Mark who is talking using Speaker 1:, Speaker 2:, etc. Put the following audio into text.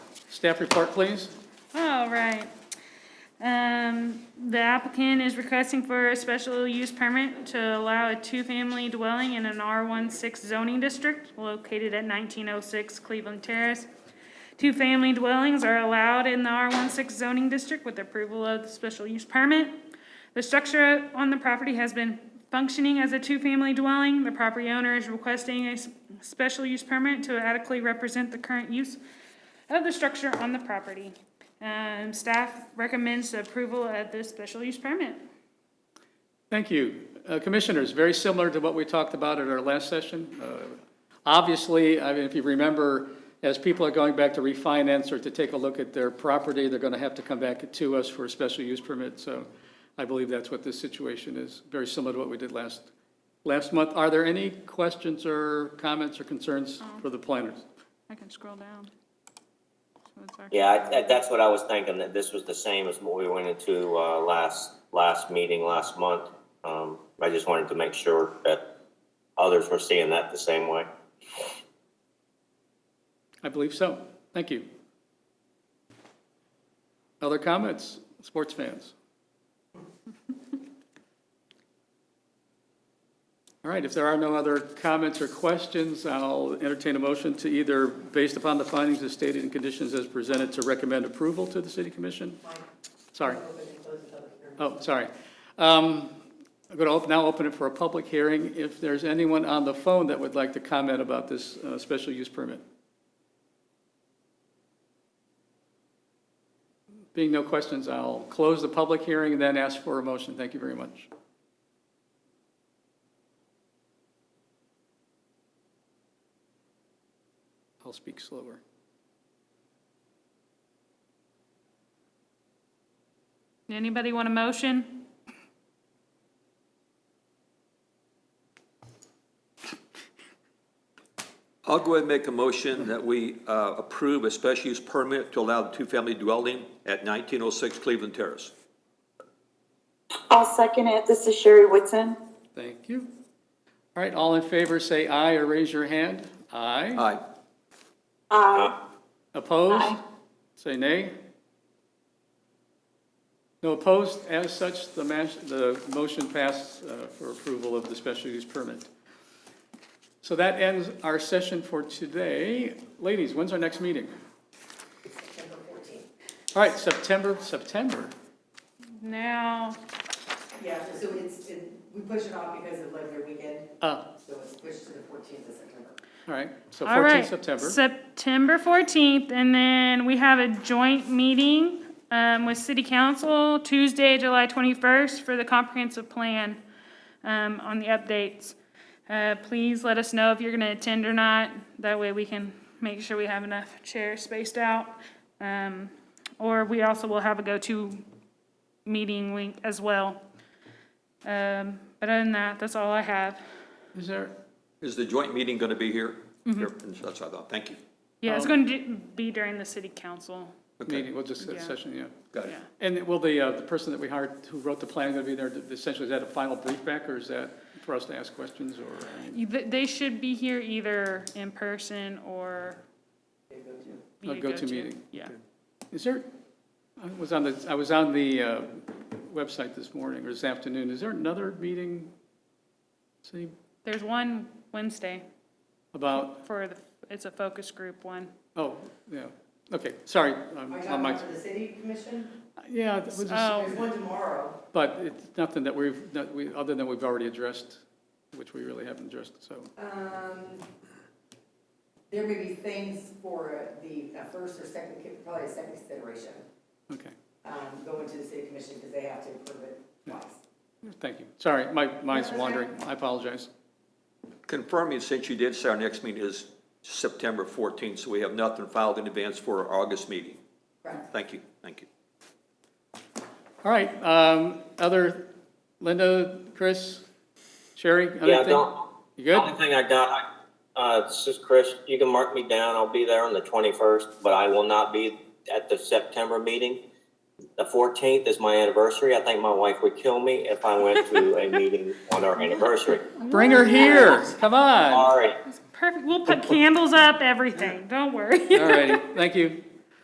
Speaker 1: Staff report, please.
Speaker 2: All right. Um, the applicant is requesting for a special use permit to allow a two-family dwelling in an R16 zoning district located at 1906 Cleveland Terrace. Two-family dwellings are allowed in the R16 zoning district with approval of the special use permit. The structure on the property has been functioning as a two-family dwelling. The property owner is requesting a s- special use permit to adequately represent the current use of the structure on the property. Um, staff recommends the approval of this special use permit.
Speaker 1: Thank you. Uh, Commissioners, very similar to what we talked about at our last session. Uh, Obviously, I mean, if you remember, as people are going back to refinance or to take a look at their property, they're going to have to come back to us for a special use permit. So I believe that's what this situation is, very similar to what we did last, last month. Are there any questions or comments or concerns for the planners?
Speaker 2: I can scroll down. So it's our-
Speaker 3: Yeah, I- I- that's what I was thinking, that this was the same as what we went into uh, last, last meeting last month. Um, I just wanted to make sure that others were seeing that the same way.
Speaker 1: I believe so. Thank you. Other comments, sports fans? All right, if there are no other comments or questions, I'll entertain a motion to either, based upon the findings as stated and conditions as presented, to recommend approval to the city commission? Sorry. Oh, sorry. Um, I'm going to open- now open it for a public hearing. If there's anyone on the phone that would like to comment about this uh, special use permit? Being no questions, I'll close the public hearing and then ask for a motion. Thank you very much. I'll speak slower.
Speaker 2: Anybody want a motion?
Speaker 4: I'll go ahead and make a motion that we uh, approve a special use permit to allow the two-family dwelling at 1906 Cleveland Terrace.
Speaker 5: I'll second it. This is Sherry Whitson.
Speaker 1: Thank you. All right, all in favor, say aye or raise your hand. Aye.
Speaker 4: Aye.
Speaker 5: Aye.
Speaker 1: Opposed?
Speaker 5: Aye.
Speaker 1: Say nay. No opposed? As such, the mas- the motion passed uh, for approval of the special use permit. So that ends our session for today. Ladies, when's our next meeting? All right, September, September.
Speaker 2: Now,
Speaker 6: Yeah, so it's, it- we push it off because of Labor Day weekend,
Speaker 1: Uh,
Speaker 6: so it's pushed to the fourteenth of September.
Speaker 1: All right, so
Speaker 2: all right.
Speaker 1: 14 September.
Speaker 2: September fourteenth, and then we have a joint meeting, um, with city council Tuesday, July twenty-first for the comprehensive plan, um, on the updates. Uh, please let us know if you're gonna attend or not. That way we can make sure we have enough chairs spaced out. Um, or we also will have a go-to meeting link as well. Um, but other than that, that's all I have.
Speaker 1: Is there,
Speaker 4: Is the joint meeting going to be here?
Speaker 1: Mm-hmm.
Speaker 4: Here, That's what I thought. Thank you.
Speaker 2: Yeah, it's
Speaker 1: Um,
Speaker 2: going to be during the city council.
Speaker 4: Okay,
Speaker 1: meeting, we'll just,
Speaker 2: Yeah.
Speaker 1: session, yeah.
Speaker 4: got it.
Speaker 2: Yeah.
Speaker 1: And will the, uh, the person that we hired, who wrote the plan, going to be there, essentially, is that a final brief back, or is that for us to ask questions, or? I mean,
Speaker 2: You- th- They should be here either in person or.
Speaker 1: A
Speaker 2: via
Speaker 1: go-to meeting.
Speaker 2: Yeah.
Speaker 1: Is there, I was on the, I was on the uh, website this morning, or this afternoon, is there another meeting, see,
Speaker 2: There's one Wednesday
Speaker 1: about,
Speaker 2: for the, it's a focus group one.
Speaker 1: oh, yeah, okay, sorry, I'm
Speaker 6: Are you
Speaker 1: on
Speaker 6: talking
Speaker 1: my,
Speaker 6: about for the city commission?
Speaker 1: yeah, it was just-
Speaker 2: Oh.
Speaker 6: There's one tomorrow.
Speaker 1: but it's nothing that we've, that we, other than we've already addressed, which we really haven't addressed, so.
Speaker 6: Um, there may be things for the uh, first or second, probably a second consideration,
Speaker 1: Okay,
Speaker 6: um, going to the city commission because they have to approve it twice.
Speaker 1: thank you, sorry, my mind's
Speaker 6: okay.
Speaker 1: wandering, I apologize.
Speaker 4: Confirming, since you did say our next meeting is September 14th, so we have nothing filed in advance for our August meeting.
Speaker 6: Correct.
Speaker 4: Thank you, thank you.
Speaker 1: All right, um, other, Linda, Chris, Sherry,
Speaker 3: Yeah,
Speaker 1: anything?
Speaker 3: don't,
Speaker 1: You
Speaker 3: the
Speaker 1: good?
Speaker 3: only thing I got, uh, this is Chris, you can mark me down, I'll be there on the twenty-first, but I will not be at the September meeting. The fourteenth is my anniversary, I think my wife would kill me if I went to a meeting on our anniversary.
Speaker 1: Bring her here, come on.
Speaker 3: Sorry.
Speaker 2: Perfect. We'll put candles up, everything. Don't worry.
Speaker 1: All righty, thank you.